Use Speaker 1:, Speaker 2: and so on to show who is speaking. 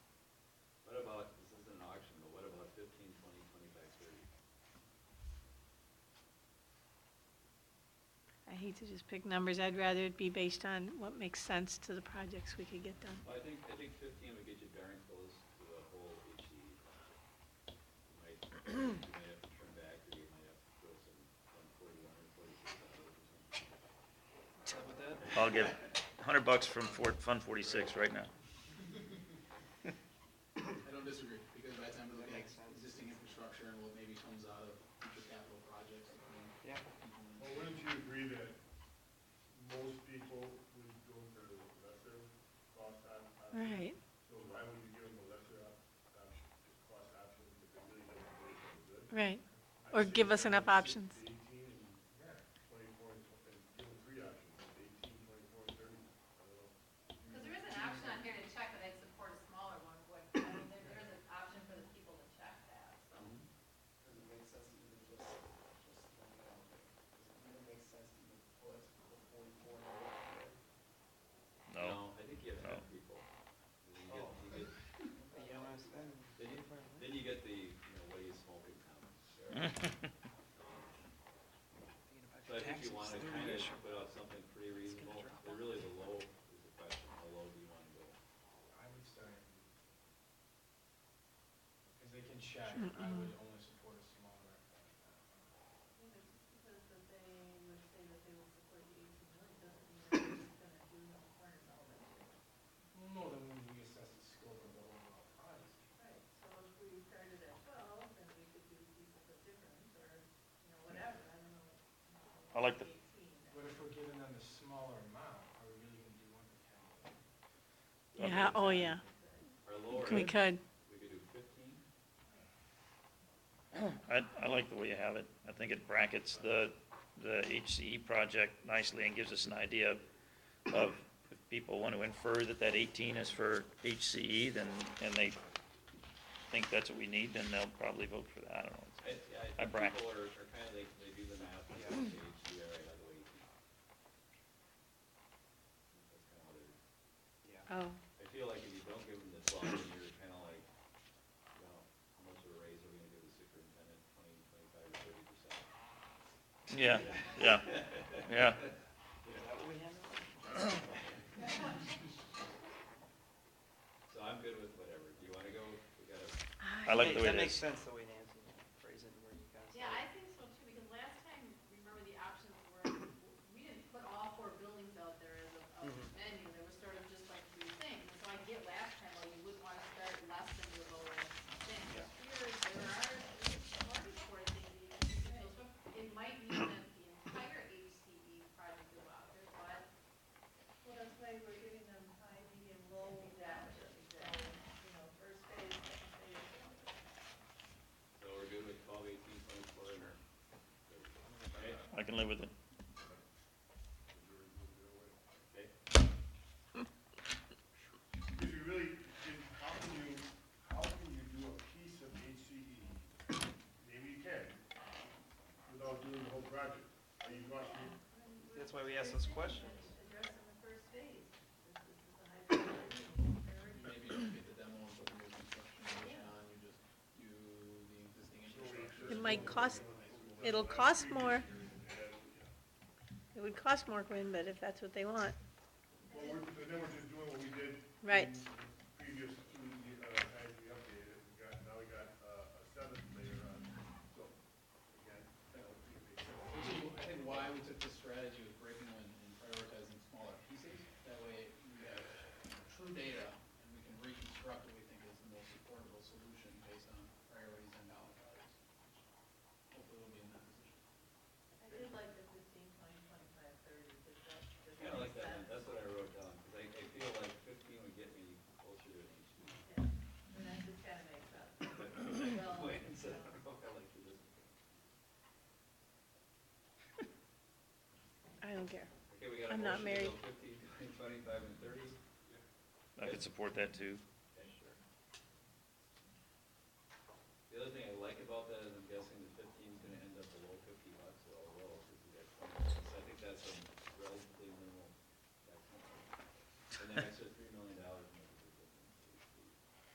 Speaker 1: I hate to just pick numbers. I'd rather it be based on what makes sense to the projects we could get done.
Speaker 2: Well, I think, I think fifteen would get you darn close to the whole HE project. You might, you might have to turn back, or you might have to go some one forty, one hundred forty-six dollars or something. How about that?
Speaker 3: I'll get hundred bucks from Fort, Fund forty-six right now.
Speaker 4: I don't disagree, because by the time we look at existing infrastructure and what maybe comes out of future capital projects.
Speaker 5: Yeah.
Speaker 6: Well, wouldn't you agree that most people would go for the lesser cost op- option?
Speaker 1: Right.
Speaker 6: So why would you give them the lesser op- option, cost option, if they really don't think it's good?
Speaker 1: Right. Or give us enough options.
Speaker 6: Eighteen and twenty-four, and tw- and give them three options, eighteen, twenty-four, and thirty, I don't know.
Speaker 7: Because there is an option on here to check that I'd support a smaller one, but I mean, there, there is an option for the people to check that, so.
Speaker 5: Does it make sense to even just, just throwing it out there? Does it even make sense to even put the forty-four in there?
Speaker 3: No,
Speaker 2: I think you have ten
Speaker 3: No.
Speaker 2: people. Then you get,
Speaker 5: Oh.
Speaker 2: you get,
Speaker 5: But you don't wanna spend.
Speaker 2: then you, then you get the, you know, what are you smoking comments.
Speaker 3: Mm.
Speaker 2: So I think you wanna kinda put out something pretty reasonable,
Speaker 5: drop
Speaker 2: but really the low is the question, how low do you wanna go?
Speaker 4: I would start. Because they can check, I would only support a smaller.
Speaker 7: Because they would say that they will support the eighteen million, doesn't mean gonna do the requirement.
Speaker 4: No, then when we assess the scope of the overall project.
Speaker 7: Right, so if we started at twelve, then we could do pieces of difference, or, you know, whatever, I don't know.
Speaker 3: I like the-
Speaker 4: But if we're giving them the smaller amount, are we really gonna do one for ten?
Speaker 1: Yeah, oh, yeah.
Speaker 2: Or lower,
Speaker 1: We
Speaker 2: we
Speaker 1: could.
Speaker 2: could do fifteen,
Speaker 3: I, I like the way you have it. I think it brackets the, the HCE project nicely and gives us an idea of, if people want to infer that that eighteen is for HCE, then, and they think that's what we need, then they'll probably vote for that, I don't know.
Speaker 2: I, yeah,
Speaker 3: I
Speaker 2: I think
Speaker 3: bracket.
Speaker 2: people are, are kinda, they, they do the math, they have the HE, all right, how do we? That's kinda what it is.
Speaker 1: Oh,
Speaker 2: I feel like if you don't give them the twelve, then you're kinda like, you know, how much of a raise are we gonna give the superintendent, twenty, twenty-five, or thirty percent?
Speaker 3: Yeah, yeah, yeah.
Speaker 2: So I'm good with whatever, do you wanna go, we gotta,
Speaker 3: I like the way
Speaker 5: That
Speaker 3: it
Speaker 5: makes
Speaker 3: is.
Speaker 5: sense the way Nancy phrased it, where you guys.
Speaker 7: Yeah, I think so too, because last time, remember the options were, we didn't put all four buildings out there as a, a
Speaker 5: Mhm.
Speaker 7: menu, there was sort of just like three things. And So I get last time, well, you would want to start less than your lower thing.
Speaker 5: Yeah.
Speaker 7: Here, there are, large four things you can do, so it might mean that the entire HCE project go out there, but. Well, that's why we're giving them high, medium, low. Exactly, exactly. You know, first phase, second phase.
Speaker 2: so we're good with twelve, eighteen, twenty-four, and our. Okay,
Speaker 3: I can live with it.
Speaker 2: okay,
Speaker 6: If you really, if- how can you, how can you do a piece of HCE, maybe you can, without doing the whole project? Are you going to,
Speaker 5: That's why we asked those questions.
Speaker 4: Maybe you get the demo and put the new construction version on, you just do the existing infrastructure.
Speaker 1: It might cost, it'll cost more. It would cost more, Quinn, but if that's what they want.
Speaker 6: well, we're, but then we're just doing what we did.
Speaker 1: Right.
Speaker 6: in Previous, to the, uh, times we updated, it. we got, now we got, uh, a seventh layer on, so, again, that would be a big difference.
Speaker 4: Which is, I think, why we took this strategy of breaking them and prioritizing smaller pieces. That way, we have true data, and we can reconstruct what we think is the most affordable solution based on priorities and dollar values. Hopefully, we'll be in that position.
Speaker 7: I did like the fifteen, twenty, twenty-five, thirty, does that, does that
Speaker 2: kinda like
Speaker 7: make
Speaker 2: that, one.
Speaker 7: sense?
Speaker 2: that's what I wrote down, cause I, I feel like fifteen would get me closer to an HE.
Speaker 7: And that just kind of makes sense. Well,
Speaker 2: Wayne said, I don't know if I like this.
Speaker 1: I don't care.
Speaker 2: Okay, we got a
Speaker 1: I'm
Speaker 2: motion to
Speaker 1: not
Speaker 2: go
Speaker 1: married.
Speaker 2: fifteen, twenty, twenty-five, and thirty,
Speaker 3: I could support that too.